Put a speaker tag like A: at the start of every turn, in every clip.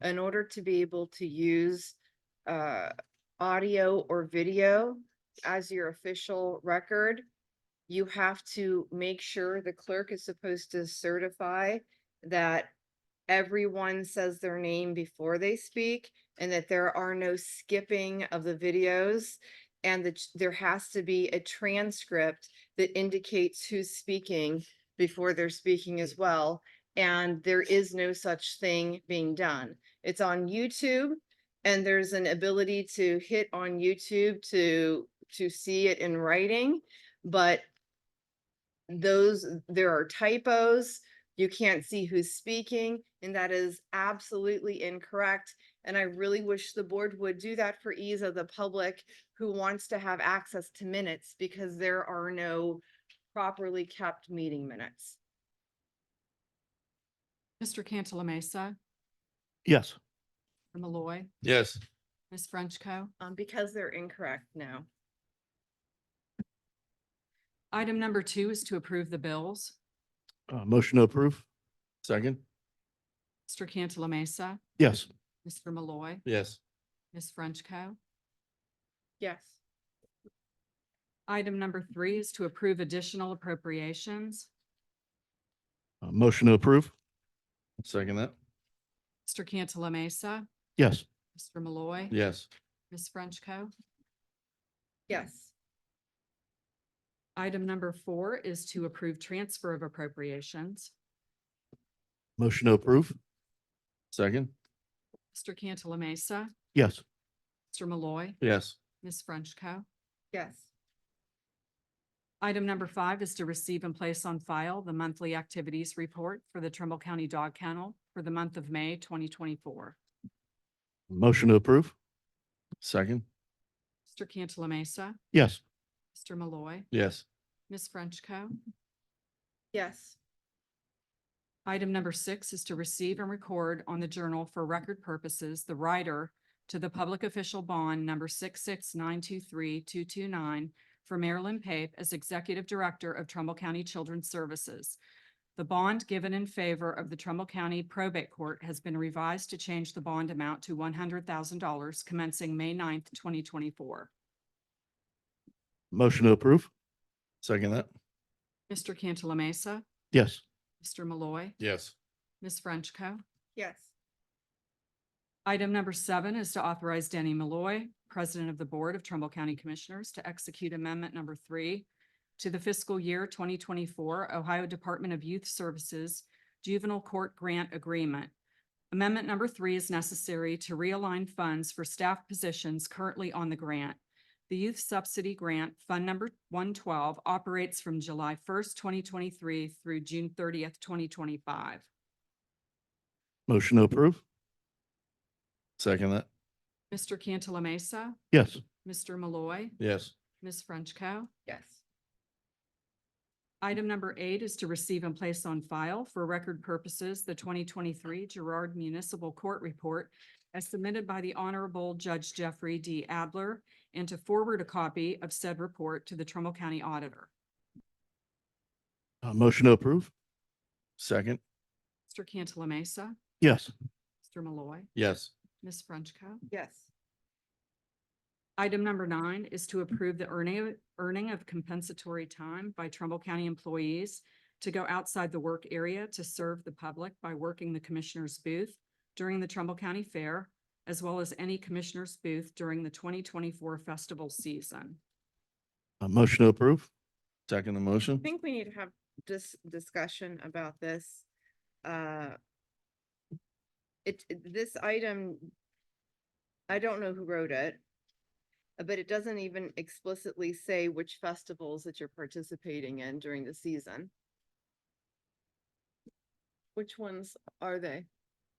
A: in order to be able to use uh, audio or video as your official record, you have to make sure the clerk is supposed to certify that everyone says their name before they speak and that there are no skipping of the videos. And that there has to be a transcript that indicates who's speaking before they're speaking as well. And there is no such thing being done. It's on YouTube and there's an ability to hit on YouTube to, to see it in writing, but those, there are typos, you can't see who's speaking, and that is absolutely incorrect. And I really wish the board would do that for ease of the public who wants to have access to minutes because there are no properly kept meeting minutes.
B: Mr. Cantala Mesa,
C: Yes.
B: Malloy,
D: Yes.
B: Ms. Frenchco.
A: Um, because they're incorrect now.
B: Item number two is to approve the bills.
C: Uh, motion to approve?
D: Second?
B: Mr. Cantala Mesa,
C: Yes.
B: Mr. Malloy,
D: Yes.
B: Ms. Frenchco.
A: Yes.
B: Item number three is to approve additional appropriations.
C: Uh, motion to approve?
D: Second that?
B: Mr. Cantala Mesa,
C: Yes.
B: Mr. Malloy,
D: Yes.
B: Ms. Frenchco.
A: Yes.
B: Item number four is to approve transfer of appropriations.
C: Motion to approve?
D: Second?
B: Mr. Cantala Mesa,
C: Yes.
B: Mr. Malloy,
D: Yes.
B: Ms. Frenchco.
A: Yes.
B: Item number five is to receive and place on file the monthly activities report for the Trumbull County Dog Kennel for the month of May twenty twenty-four.
C: Motion to approve?
D: Second?
B: Mr. Cantala Mesa,
C: Yes.
B: Mr. Malloy,
D: Yes.
B: Ms. Frenchco.
A: Yes.
B: Item number six is to receive and record on the journal for record purposes the rider to the public official bond number six six nine two three two two nine for Marilyn Pape as Executive Director of Trumbull County Children's Services. The bond given in favor of the Trumbull County Probate Court has been revised to change the bond amount to one hundred thousand dollars commencing May 9th, twenty twenty-four.
C: Motion to approve?
D: Second that?
B: Mr. Cantala Mesa,
C: Yes.
B: Mr. Malloy,
D: Yes.
B: Ms. Frenchco.
A: Yes.
B: Item number seven is to authorize Danny Malloy, President of the Board of Trumbull County Commissioners, to execute Amendment Number Three to the fiscal year twenty twenty-four Ohio Department of Youth Services Juvenile Court Grant Agreement. Amendment Number Three is necessary to realign funds for staff positions currently on the grant. The Youth Subsidy Grant Fund Number one twelve operates from July first, twenty twenty-three through June thirtieth, twenty twenty-five.
C: Motion to approve?
D: Second that?
B: Mr. Cantala Mesa,
C: Yes.
B: Mr. Malloy,
D: Yes.
B: Ms. Frenchco.
A: Yes.
B: Item number eight is to receive and place on file for record purposes the twenty twenty-three Girard Municipal Court Report as submitted by the Honorable Judge Jeffrey D. Adler and to forward a copy of said report to the Trumbull County Auditor.
C: Uh, motion to approve?
D: Second?
B: Mr. Cantala Mesa,
C: Yes.
B: Mr. Malloy,
D: Yes.
B: Ms. Frenchco.
A: Yes.
B: Item number nine is to approve the earning, of- earning of compensatory time by Trumbull County employees to go outside the work area to serve the public by working the commissioner's booth during the Trumbull County Fair, as well as any commissioner's booth during the twenty twenty-four festival season.
C: Uh, motion to approve?
D: Second the motion?
A: I think we need to have this discussion about this. Uh It, it- this item, I don't know who wrote it. uh, But it doesn't even explicitly say which festivals that you're participating in during the season. Which ones are they?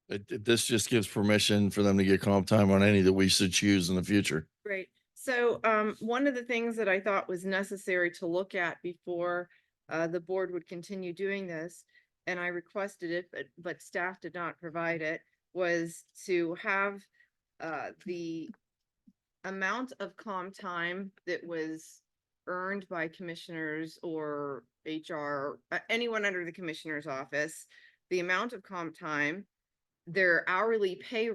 D: It- it- This just gives permission for them to get comp time on any that we should choose in the future.
A: Great. So um, one of the things that I thought was necessary to look at before uh, the board would continue doing this, and I requested it, but, but staff did not provide it, was to have uh, the amount of calm time that was earned by commissioners or HR, uh, anyone under the commissioner's office, the amount of calm time, their hourly pay